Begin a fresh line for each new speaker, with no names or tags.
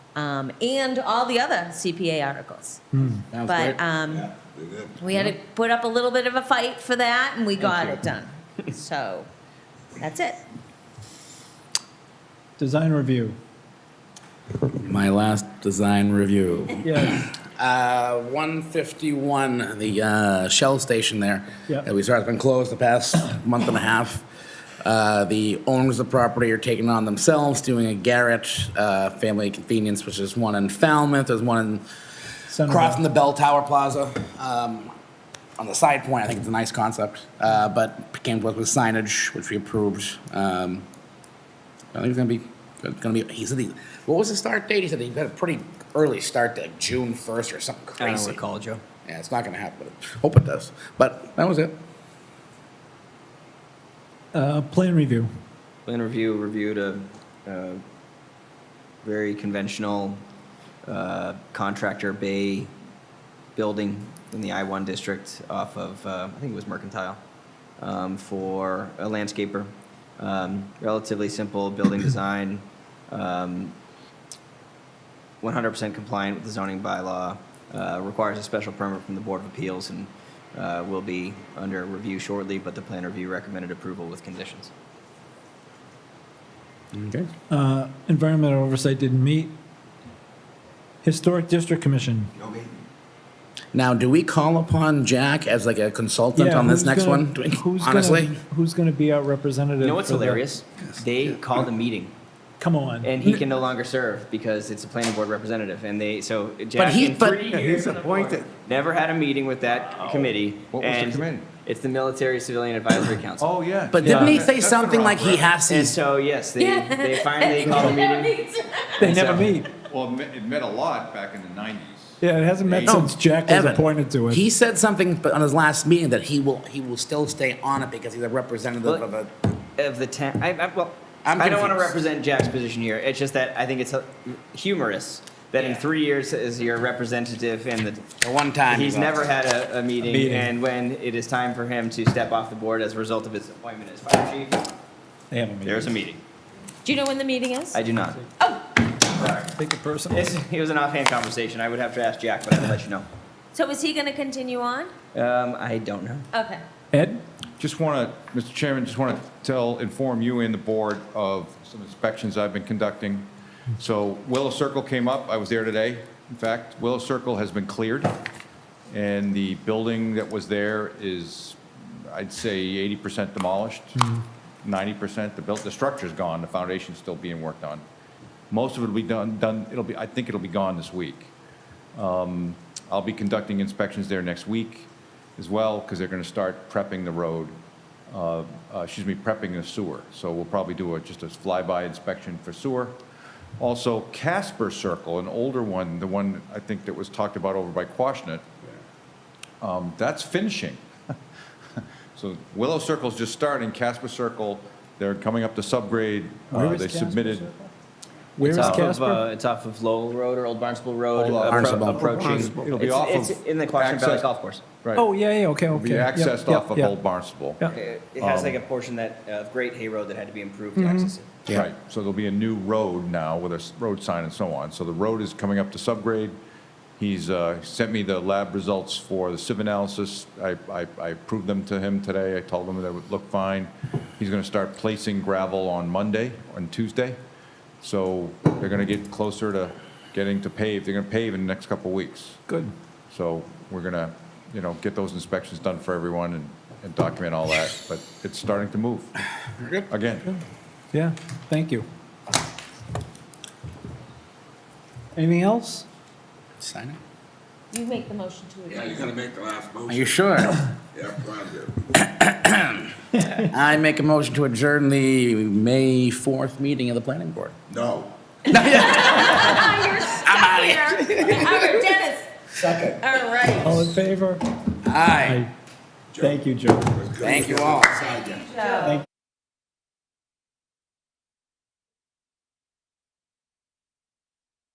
um, and all the other CPA articles.
Sounds
But
great.
um,
Yeah, they did.
we had to put up a little bit of a fight for that, and we got it done. So that's it.
Design review.
My last design review.
Yes.
Uh, 151, the uh, Shell station there.
Yep.
that We saw it's been closed the past month and a half. Uh, The owners of the property are taking it on themselves, doing a Garrett uh, Family Convenience, which is one in Falmouth, there's one in,
Centerville.
crossing the Bell Tower Plaza. um, On the side point, I think it's a nice concept, uh, but came with signage, which we approved. Um, I think it's gonna be, it's gonna be, he said, he- what was the start date? He said he had a pretty early start, like June first or something
I don't
crazy.
recall, Joe.
Yeah, it's not gonna happen, but hope it does. But that was it.
Uh, plan review.
Plan review reviewed a, a very conventional uh, contractor bay building in the I-1 district off of, uh, I think it was Mercantile, um, for a landscaper. Um, Relatively simple building design, um, 100% compliant with the zoning bylaw, uh, requires a special permit from the Board of Appeals and uh, will be under review shortly, but the plan review recommended approval with conditions.
Okay.
Uh, environmental oversight didn't meet. Historic district commission.
No meeting.
Now, do we call upon Jack as like a consultant
Yeah,
on this
who's
next
gonna-
one? Do we-
who's gonna-
Honestly?
who's going to be our representative?
You know what's
for the-
hilarious? They called a meeting,
Come on.
and he can no longer serve because it's a planning board representative, and they, so
But
Jack,
he,
in
but,
three
He's
years,
appointed.
never had a meeting with that committee.
What was the
and
committee?
It's the Military Civilian Advisory Council.
Oh, yeah.
but didn't he
Yeah.
say
That's
something
the
like he
wrong
has
And
these?
so, yes, they, they finally called a meeting.
they never
so-
meet.
word. Well, it me- it meant a lot back in the nineties.
Yeah, it hasn't met
No,
since Jack was
Evan,
appointed to it.
He said something but on his last meeting that he will, he will still stay on it because he's a representative
Well,
of a.
Of the town, I, I, well,
I'm
I don't want to
confused.
represent Jack's position here. It's just that I think it's uh, humorous that in
Yeah.
three years as your representative and the
The one time.
He's
he
never
lost.
had a, a meeting,
meeting.
and when it is time for him to step off the board as a result of his appointment as fire chief,
they haven't met.
there's a meeting.
Do you know when the meeting is?
I do not.
Take it personal.
It's, it was an offhand conversation. I would have to ask Jack, but I'll let you know.
So is he going to continue on?
Um, I don't know.
Okay.
Ed,
Just want to, Mr. Chairman, just want to tell, inform you and the board of some inspections I've been conducting. So Willow Circle came up, I was there today, in fact. Willow Circle has been cleared, and the building that was there is, I'd say, 80% demolished,
Mm-hmm.
90%, the built, the structure's gone, the foundation's still being worked on. Most of it'll be done, done, it'll be, I think it'll be gone this week. Um, I'll be conducting inspections there next week as well, because they're going to start prepping the road, uh, uh, excuse me, prepping the sewer. So we'll probably do a- just a flyby inspection for sewer. Also Casper Circle, an older one, the one I think that was talked about over by Quashnet, um, that's finishing. So Willow Circle's just starting, Casper Circle, they're coming up to subgrade. Uh,
Where is
They
Casper
submitted,
Circle? where is
it's off
Casper?
Of, uh, it's off of Lowell Road or Old Barnstable Road,
Old
appro-
Barnstable.
approaching.
It'll be
it's,
off
it's
of
in the Quashnet Valley
access-
Golf Course.
right,
oh yeah, yeah. Okay, okay.
will be
Yep,
accessed
yep,
off of
yep.
Old Barnstable.
Yeah.
It, it has
Um.
like a portion that uh, Great Hay Road that had to be improved to access it.
Yeah.
Right, so there'll be a new road now with a s- road sign and so on. So the road is coming up to subgrade. He's uh, sent me the lab results for the sieve analysis. I I- I approved them to him today. I told him they would look fine. He's going to start placing gravel on Monday, on Tuesday. So they're going to get closer to getting to pave. They're going to pave in the next couple of weeks.
Good.
So we're going to, you know, get those inspections done for everyone and- and document all that. But it's starting to move. Again.
Yeah. Thank you. Anything else?
Sign it?
You make the motion to
Yeah,
adjourn.
you're gonna make the last
Are
motion.
you sure?
Yeah, Brian did.
I make a motion to adjourn the May 4th meeting of the planning board.
No.
Ah, you're stuck here. All right, Dennis.
Second.
All right.
All in favor?
Aye.
Thank you, Joe.
Thank you all.
Side, yeah.
So-